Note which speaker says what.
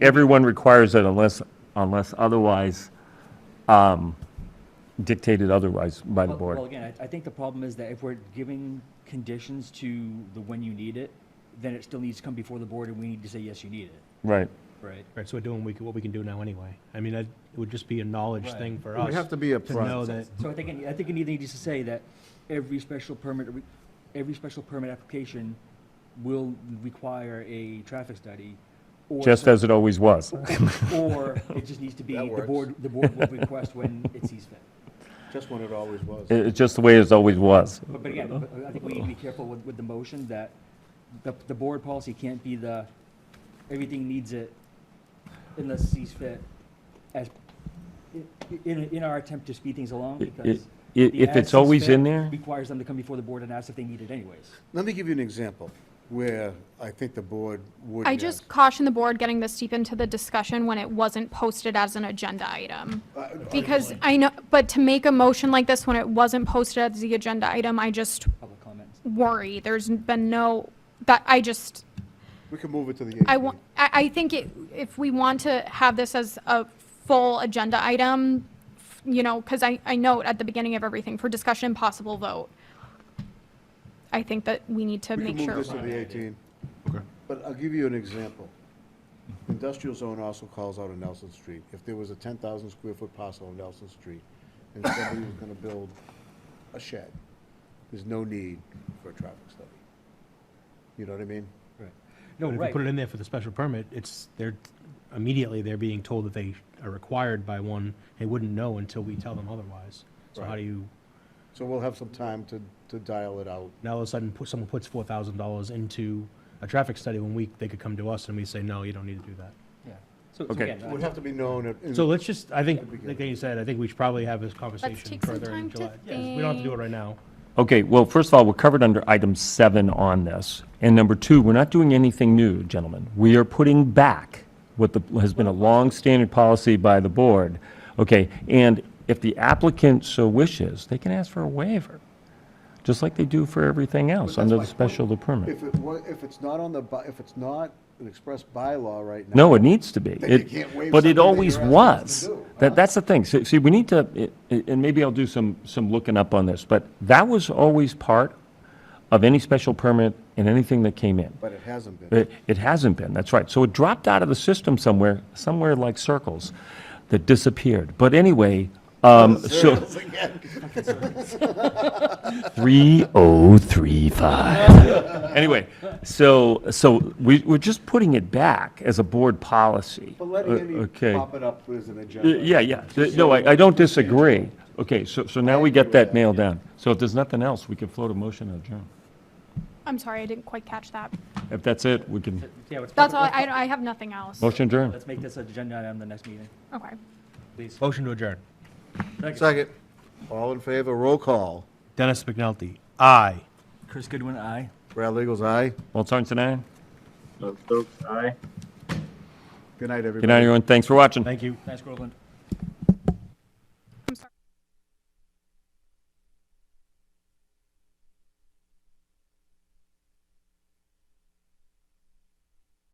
Speaker 1: everyone requires it unless, unless otherwise um, dictated otherwise by the
Speaker 2: Well- Well,
Speaker 1: board.
Speaker 2: again, I, I think the problem is that if we're giving conditions to the when you need it, then it still needs to come before the board and we need to say, yes, you need it.
Speaker 1: Right.
Speaker 2: Right.
Speaker 3: Right, so we're doing we c- what we can do now anyway. I mean, that- it would just be a knowledge
Speaker 2: Right.
Speaker 3: thing for us.
Speaker 4: We have to be
Speaker 3: To know
Speaker 4: upfront.
Speaker 3: that,
Speaker 2: So I think, it- I think it either needs to say that every special permit, every special permit application will require a traffic study. or
Speaker 1: Just
Speaker 2: some-
Speaker 1: as it always was.
Speaker 2: Or it just needs to be,
Speaker 5: That
Speaker 2: the
Speaker 5: works.
Speaker 2: board, the board will request when it sees fit.
Speaker 5: Just when it always was.
Speaker 1: It- It's just the way it always was.
Speaker 2: But, but again, but I think we need to be careful with, with the motion that the, the board policy can't be the, everything needs it unless sees fit as, i- i- in, in our attempt to speed things along
Speaker 1: I- i-
Speaker 2: because.
Speaker 1: i-
Speaker 2: the
Speaker 1: if
Speaker 2: as
Speaker 1: it's
Speaker 2: sees
Speaker 1: always
Speaker 2: fit
Speaker 1: in there?
Speaker 2: Requires them to come before the board and ask if they need it anyways.
Speaker 4: Let me give you an example where I think the board would.
Speaker 6: I
Speaker 4: yes.
Speaker 6: just caution the board getting this deep into the discussion when it wasn't posted as an agenda item.
Speaker 4: Uh,
Speaker 6: Because I know, but to make a motion like this when it wasn't posted as the agenda item, I just
Speaker 2: Public comments.
Speaker 6: worry. There's been no, that, I just,
Speaker 4: We can move it to the eighteenth.
Speaker 6: I want, I, I think it, if we want to have this as a full agenda item, you know, because I, I note at the beginning of everything, for discussion, possible vote. I think that we need to
Speaker 4: We can
Speaker 6: make
Speaker 4: move
Speaker 6: sure.
Speaker 4: this to the eighteenth. But I'll give you an example. Industrial zone also calls out a Nelson Street. If there was a ten thousand square foot parcel on Nelson Street and somebody was gonna build a shed, there's no need for a traffic study. You know what I mean?
Speaker 2: Right.
Speaker 3: but
Speaker 2: No,
Speaker 3: if you
Speaker 2: right.
Speaker 3: put it in there for the special permit, it's, they're, immediately they're being told that they are required by one. They wouldn't know until we tell them otherwise. So how
Speaker 4: Right.
Speaker 3: do you,
Speaker 4: So we'll have some time to, to dial it out.
Speaker 3: now all of a sudden, put- someone puts four thousand dollars into a traffic study when we, they could come to us and we say, no, you don't need to do that.
Speaker 2: Yeah. So, so
Speaker 1: Okay.
Speaker 2: again, uh,
Speaker 4: It would have to be known at. in-
Speaker 3: So let's just, I think,
Speaker 4: That'd be good.
Speaker 3: like you said, I think we should probably have this conversation
Speaker 6: take some
Speaker 3: further in
Speaker 6: time to
Speaker 3: July. We don't have to do it
Speaker 6: think.
Speaker 3: right now.
Speaker 1: Okay, well, first of all, we're covered under item seven on this. And number two, we're not doing anything new, gentlemen. We are putting back what the, has been a long-standing policy by the board. Okay, and if the applicant so wishes, they can ask for a waiver, just like they do for everything else under the special permit.
Speaker 4: If it was, if it's not on the, bu- if it's not an express bylaw right now.
Speaker 1: No, it needs to be.
Speaker 4: you
Speaker 1: It-
Speaker 4: can't waive
Speaker 1: But
Speaker 4: something
Speaker 1: it
Speaker 4: that
Speaker 1: always
Speaker 4: you're asking us
Speaker 1: was.
Speaker 4: to do,
Speaker 1: That, that's the thing. See, see, we need to, it- it- and maybe I'll do some, some looking up on this, but that was always part of any special permit and anything that came in.
Speaker 4: But it hasn't been.
Speaker 1: It, it hasn't been, that's right. So it dropped out of the system somewhere, somewhere like circles that disappeared. But anyway, um, so. Three oh three five. Anyway, so, so we, we're just putting it back as a board policy.
Speaker 4: But letting
Speaker 1: Uh,
Speaker 4: any
Speaker 1: Okay.
Speaker 4: pop it up as an
Speaker 1: Uh,
Speaker 4: agenda.
Speaker 1: Yeah, yeah. Th- No, I, I don't disagree. Okay, so, so now we get that nailed down. So if there's nothing else, we can float a motion to adjourn.
Speaker 6: I'm sorry, I didn't quite catch that.
Speaker 1: If that's it, we can,
Speaker 2: yeah, let's-
Speaker 6: That's all, I, I have nothing else.
Speaker 1: motion adjourned.
Speaker 2: Let's make this agenda item the next meeting,
Speaker 6: Okay.
Speaker 2: please.
Speaker 3: Motion to adjourn.
Speaker 4: Second. All in favor, roll call.
Speaker 3: Dennis McNulty, aye.
Speaker 2: Chris Goodwin, aye.
Speaker 4: Brad Legals, aye.
Speaker 1: Walt Sorensen, aye.
Speaker 4: Good night, everybody.
Speaker 1: Good night, everyone. Thanks for watching.
Speaker 3: Thank you.
Speaker 2: Thanks, Groveland.